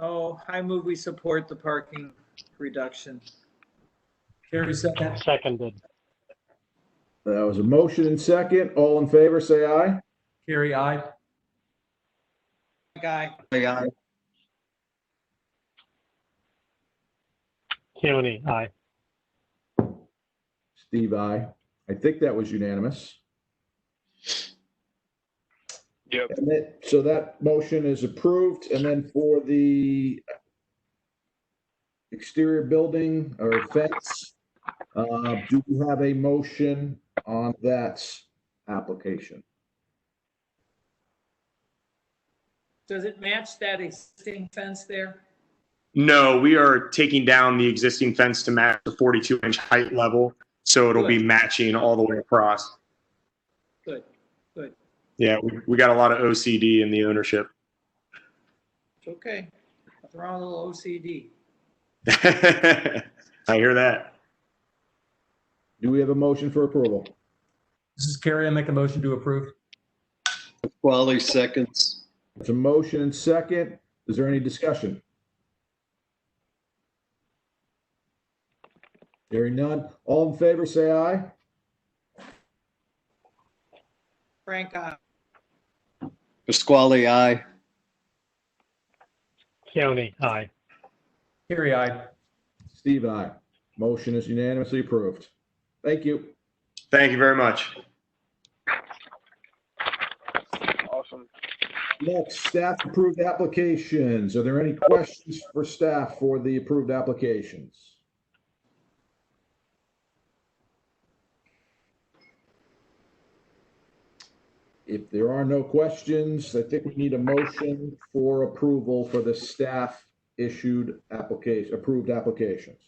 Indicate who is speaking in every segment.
Speaker 1: Oh, I move we support the parking reduction. Carrie second.
Speaker 2: Seconded.
Speaker 3: That was a motion and second. All in favor, say aye.
Speaker 4: Carrie, aye.
Speaker 1: Guy,
Speaker 2: Keawney, aye.
Speaker 3: Steve, aye. I think that was unanimous.
Speaker 5: Yep.
Speaker 3: And that- so that motion is approved. And then for the exterior building or fence, uh, do we have a motion on that application?
Speaker 1: does it match that existing fence there?
Speaker 5: No, we are taking down the existing fence to match the 42 inch height level. So it'll be matching all the way across.
Speaker 1: Good.
Speaker 5: Yeah, we, we got a lot of OCD in the ownership.
Speaker 1: It's okay. They're all a little OCD.
Speaker 5: I hear that.
Speaker 3: Do we have a motion for approval?
Speaker 4: This is Carrie. I make a motion to approve.
Speaker 6: Quality seconds.
Speaker 3: It's a motion and second. Is there any discussion? Hearing none. All in favor, say aye.
Speaker 1: Frank, aye.
Speaker 6: Pasquale, aye.
Speaker 2: Keawney, aye.
Speaker 4: Carrie, aye.
Speaker 3: Steve, aye. Motion is unanimously approved. Thank you.
Speaker 5: Thank you very much.
Speaker 3: Next, staff approved applications. Are there any questions for staff for the approved applications? If there are no questions, I think we need a motion for approval for the staff issued application, approved applications.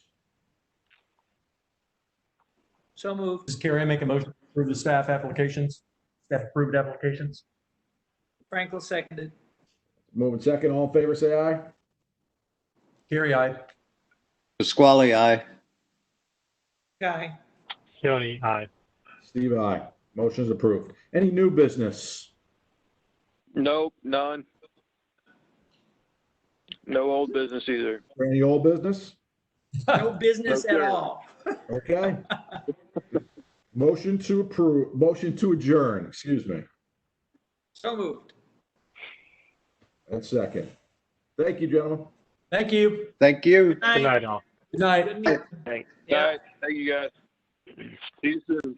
Speaker 1: So moved.
Speaker 4: This is Carrie. I make a motion to approve the staff applications, staff approved applications.
Speaker 1: Frankel seconded.
Speaker 3: Moving second, all in favor, say aye.
Speaker 4: Carrie, aye.
Speaker 6: Pasquale, aye.
Speaker 1: Guy,
Speaker 2: Keawney, aye.
Speaker 3: Steve, aye. Motion is approved. Any new business?
Speaker 7: Nope, none. No old business either.
Speaker 3: Or Any old business?
Speaker 1: no business at all.
Speaker 3: Okay. Motion to approve, motion to adjourn, excuse me,
Speaker 1: So moved.
Speaker 3: and second. Thank you, gentlemen.
Speaker 4: Thank you.
Speaker 6: Thank you.
Speaker 2: Good night, all.
Speaker 4: Good night.
Speaker 1: Good meeting.
Speaker 7: All
Speaker 1: Yeah.
Speaker 7: right, thank you guys. See you soon.